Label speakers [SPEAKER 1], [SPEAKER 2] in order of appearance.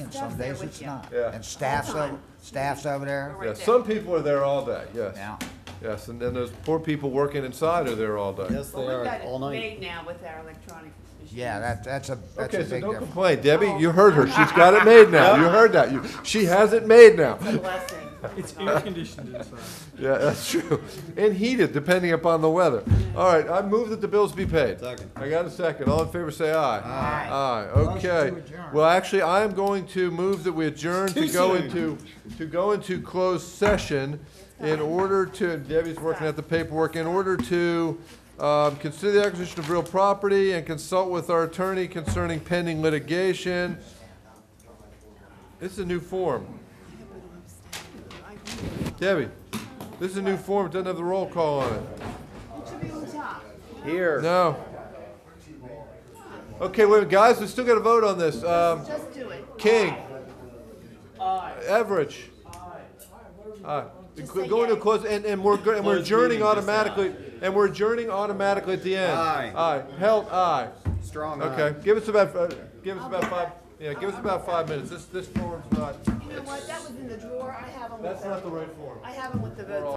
[SPEAKER 1] and
[SPEAKER 2] Staff's
[SPEAKER 1] some
[SPEAKER 2] there
[SPEAKER 1] days
[SPEAKER 2] with
[SPEAKER 1] it's
[SPEAKER 2] you.
[SPEAKER 1] not.
[SPEAKER 3] Yeah.
[SPEAKER 1] And staff's over, staff's over there.
[SPEAKER 2] We're
[SPEAKER 3] Yeah,
[SPEAKER 2] right
[SPEAKER 3] some people are there all day,
[SPEAKER 1] Yeah.
[SPEAKER 3] yes. Yes, and then those poor people working inside are there all day.
[SPEAKER 4] Yes, they
[SPEAKER 2] Well, we've
[SPEAKER 4] are
[SPEAKER 2] got
[SPEAKER 4] all
[SPEAKER 2] it made
[SPEAKER 4] night.
[SPEAKER 2] now with our electronic machines.
[SPEAKER 1] Yeah, that, that's a, that's a
[SPEAKER 3] Okay, so
[SPEAKER 1] big
[SPEAKER 3] don't
[SPEAKER 1] difference.
[SPEAKER 3] complain, Debbie, you heard her, she's got it made now, you heard that, You- she has it made now.
[SPEAKER 2] It's a blessing. Oh my
[SPEAKER 5] It's
[SPEAKER 2] God.
[SPEAKER 5] air conditioned inside.
[SPEAKER 3] Yeah, that's true, and heated, depending upon the weather. All right, I move that the bills be paid.
[SPEAKER 4] Second.
[SPEAKER 3] I got a second, all in favor say aye.
[SPEAKER 2] Aye.
[SPEAKER 3] Aye,
[SPEAKER 1] Motion to
[SPEAKER 3] okay.
[SPEAKER 1] adjourn.
[SPEAKER 3] Well, actually, I am going to move that we adjourn to
[SPEAKER 4] Too
[SPEAKER 3] go
[SPEAKER 4] soon.
[SPEAKER 3] into, to go into closed session in order to, and Debbie's working out the paperwork, in order to um, consider the acquisition of real property and consult with our attorney concerning pending litigation. This is a new form. Debbie, this is a new form, it doesn't have the roll call on it.
[SPEAKER 2] It should be on top.
[SPEAKER 4] Here.
[SPEAKER 3] No. Okay, wait, guys, we still got to vote on this. Um,
[SPEAKER 2] Just do it.
[SPEAKER 3] King.
[SPEAKER 2] Aye.
[SPEAKER 3] Average. Aye.
[SPEAKER 2] Just
[SPEAKER 3] Go-
[SPEAKER 2] say
[SPEAKER 3] Going to
[SPEAKER 2] yay.
[SPEAKER 3] close, and, and we're, go- and we're
[SPEAKER 4] Close
[SPEAKER 3] adjourning
[SPEAKER 4] meeting, just say
[SPEAKER 3] automatically, and we're adjourning automatically at the end.
[SPEAKER 4] Aye.
[SPEAKER 3] Aye. Held, aye.
[SPEAKER 4] Strong eye.
[SPEAKER 3] Okay, give us about, uh, give us about five, yeah, give us about five minutes. This, this form's not,
[SPEAKER 2] You know what? That was in the drawer. I have them with
[SPEAKER 3] that's not the
[SPEAKER 2] the,
[SPEAKER 3] right form.
[SPEAKER 2] I have them with the votes.